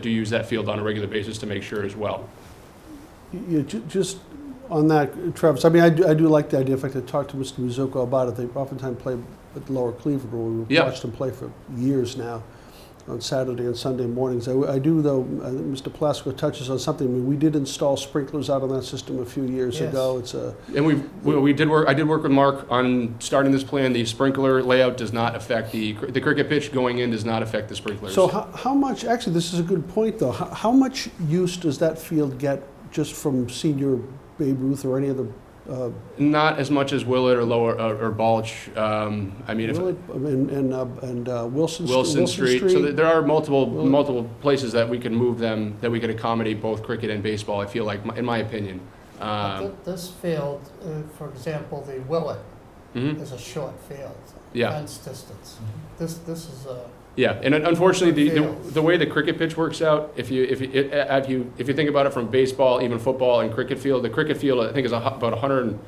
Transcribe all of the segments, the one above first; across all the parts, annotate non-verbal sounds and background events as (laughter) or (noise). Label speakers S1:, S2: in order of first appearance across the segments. S1: do use that field on a regular basis to make sure as well.
S2: Yeah, ju- just on that, Travis, I mean, I do, I do like the idea. In fact, I talked to Mr. Mizuko about it. They oftentimes play at Lower Cleveland, where we've
S1: Yeah.
S2: watched them play for years now on Saturday and Sunday mornings. I, I do, though, I think Mr. Plasko touches on something. I mean, we did install sprinklers out on that system a few years
S3: Yes.
S2: ago. It's a,
S1: And we, we we did work, I did work with Mark on starting this plan. The sprinkler layout does not affect the, cr- the cricket pitch going in does not affect the sprinklers.
S2: so how, how much, actually, this is a good point, though. How, how much use does that field get just from senior Babe Ruth or any other? Uh,
S1: Not as much as Willett or Lower, or or Balch. Um, I mean, if
S2: Willett and and, uh, and uh, Wilson, St-
S1: Wilson Street. So there- there are multiple,
S2: Willett.
S1: multiple places that we could move them, that we could accommodate both cricket and baseball, I feel like, in my opinion. Um,
S3: Th- This field, uh, for example, the Willet
S1: mhm,
S3: is a short field,
S1: Yeah.
S3: fence distance.
S2: Mm-hmm.
S3: This, this is a,
S1: Yeah, and un- unfortunately, the,
S3: Yeah.
S1: the, the way the cricket pitch works out, if you, if you, it- uh, if you, if you think about it from baseball, even football and cricket field, the cricket field, I think is a hu- about hundred and,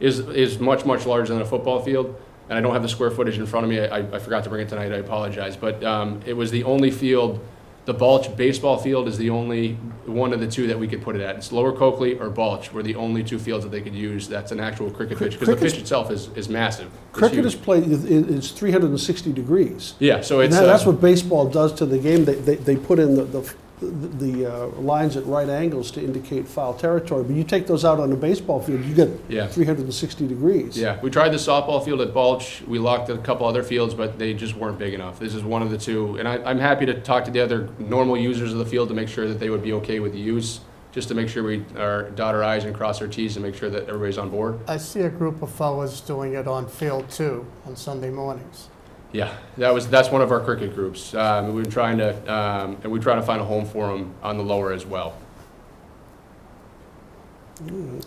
S1: is, is much, much larger than a football field. And I don't have the square footage in front of me, I, I forgot to bring it tonight, I apologize, but, um, it was the only field, the Balch baseball field is the only, one of the two that we could put it at. It's Lower Coakley or Balch were the only two fields that they could use, that's an actual cricket
S2: Cri-
S1: pitch, because the
S2: cricket's-
S1: pitch itself is, is massive. It's
S2: Cricket
S1: huge.
S2: is played, it- it- it's 360 degrees.
S1: Yeah, so
S2: And
S1: it's.
S2: that-
S1: uh,
S2: that's what baseball does to the game. They, they, they put in the, the, the uh, lines at right angles to indicate foul territory. But you take those out on a baseball field, you get
S1: Yeah.
S2: 360 degrees.
S1: Yeah, we tried the softball field at Balch. We locked a couple other fields, but they just weren't big enough. This is one of the two, and I, I'm happy to talk to the other normal users of the field to make sure that they would be okay with the use, just to make sure we are dot our i's and cross our t's and make sure that everybody's on board.
S3: I see a group of fellas doing it on field two on Sunday mornings.
S1: Yeah, that was that's one of our cricket groups. Um, we've been trying to, um, and we're trying to find a home for them on the lower as well.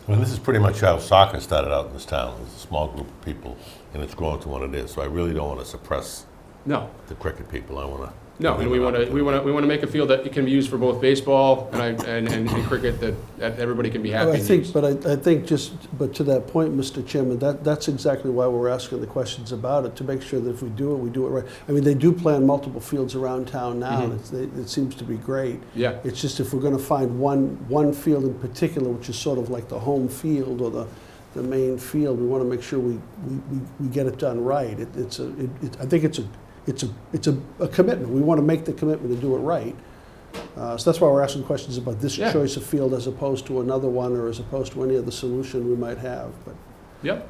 S4: Well, this is pretty much how soccer started out in this town. It was a small group of people, and it's grown to what it is. So I really don't want to suppress
S1: No,
S4: the cricket people. I want to.
S1: No, and we want to, we want to, we want to make a field that can be used for both baseball and I, and, and and cricket that, that everybody can be happy.
S2: I
S1: and
S2: think,
S1: use.
S2: but I, I think just, but to that point, Mr. Chairman, that, that's exactly why we're asking the questions about it, to make sure that if we do it, we do it right. I mean, they do play on multiple fields around town now, and
S1: Mhm.
S2: it's, they- it seems to be great.
S1: Yeah,
S2: It's just if we're going to find one, one field in particular, which is sort of like the home field or the, the main field, we want to make sure we, we, we- we get it done right. It, it's a, it, it, I think it's a, it's a, it's a, a commitment. We want to make the commitment to do it right. Uh, so that's why we're asking questions about this
S1: Yeah.
S2: choice of field as opposed to another one or as opposed to any other solution we might have. But
S1: yep.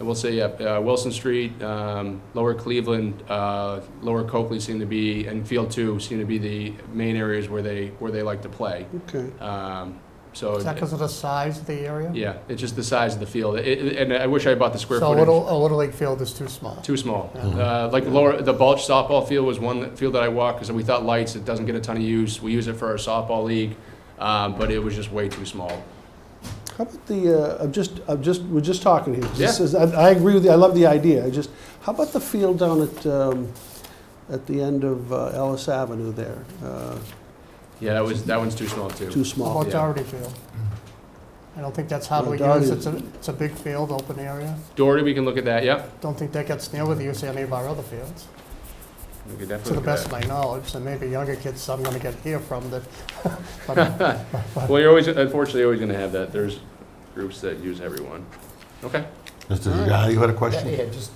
S1: And we'll say, yep, uh, Wilson Street, um, Lower Cleveland, uh, Lower Coakley seem to be, and Field Two seem to be the main areas where they, where they like to play.
S2: okay,
S1: Um, so,
S3: Is that because of the size of the area?
S1: yeah, it's just the size of the field. It- it- And I wish I bought the square
S3: So a
S1: footage.
S3: little, a little league field is too small.
S1: Too small.
S3: Mhm.
S1: Uh, Like lower, the Balch softball field was one that- field that I walked, because we thought lights, it doesn't get a ton of use. We use it for our softball league, um, but it was just way too small.
S2: how about the? Uh, I'm just, I'm just, we're just talking here. This
S1: Yeah.
S2: is- I, I agree with you. I love the idea. I just, how about the field down at, um, at the end of uh, Ellis Avenue there? Uh,
S1: Yeah, that was, that one's too small
S2: too
S1: too.
S3: How
S2: small.
S3: about
S1: yeah.
S3: Doherty Field? I don't think that's hardly
S2: Well,
S3: used. It's
S2: Doherty-
S3: a, it's a big field, open area.
S1: Doherty, we can look at that, yep.
S3: Don't think that gets near with the use of any of our other fields,
S1: We could
S3: to
S1: definitely
S3: the
S1: look at
S3: best of my knowledge. And maybe younger kids I'm gonna get here from that. (laughs) but-
S1: that. (laughs) Well, you're always, unfortunately, you're always gonna have that. There's groups that use everyone. Okay.
S4: Mr. Zagata, you had a
S5: Yeah,
S4: question?
S5: Yeah, just,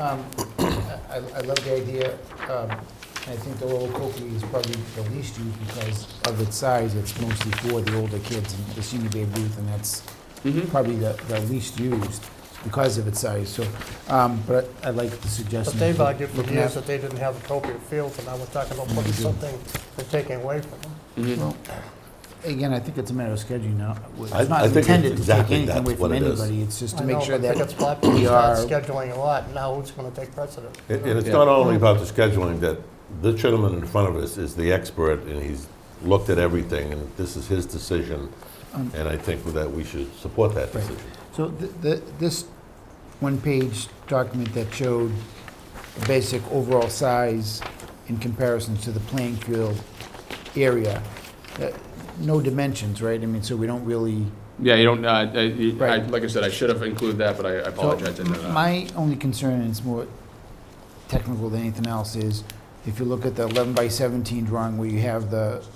S5: um, I I love the idea, um, and I think the Lower Coakley is probably the least used because of its size, it's mostly for the older kids and the senior day booth, and that's
S1: Mhm.
S5: probably the the least used because of its size, so, um, but I like the
S3: But
S5: suggestion.
S3: they've
S5: of
S3: argued for
S5: looking
S3: years
S5: at-
S3: that
S5: Mm-hmm.
S3: they didn't have appropriate fields, and now we're talking about putting something they're taking away from them.
S1: Mhm.
S5: Well, Again, I think it's a matter of scheduling now. It's
S4: I- I
S5: not
S4: think it's
S5: intended to take
S4: exactly
S5: anything
S4: that's
S5: away
S4: what
S5: from
S4: it is.
S5: anybody, it's just to
S3: I
S5: make
S3: know,
S5: sure
S3: but I think it's
S5: that
S3: popular,
S5: we
S3: it's not
S5: are-
S3: scheduling a lot, now who's going to take precedent?
S4: And and it's
S1: Yeah.
S4: not only about the scheduling, that the gentleman in front of us is the expert, and he's looked at everything, and this is his decision,
S5: Um,
S4: and I think that we should support that
S5: Right.
S4: decision.
S5: So th- th- this one-page document that showed the basic overall size in comparison to the playing field area, uh, no dimensions, right? I mean, so we don't really...
S1: Yeah, you don't, uh, uh, you- I-
S5: Right.
S1: like I said, I should have included that, but I Oh, I
S5: So
S1: apologize. I didn't know that.
S5: My only concern, and it's more technical than anything else, is If you look at the 11 by 17 drawing where you have the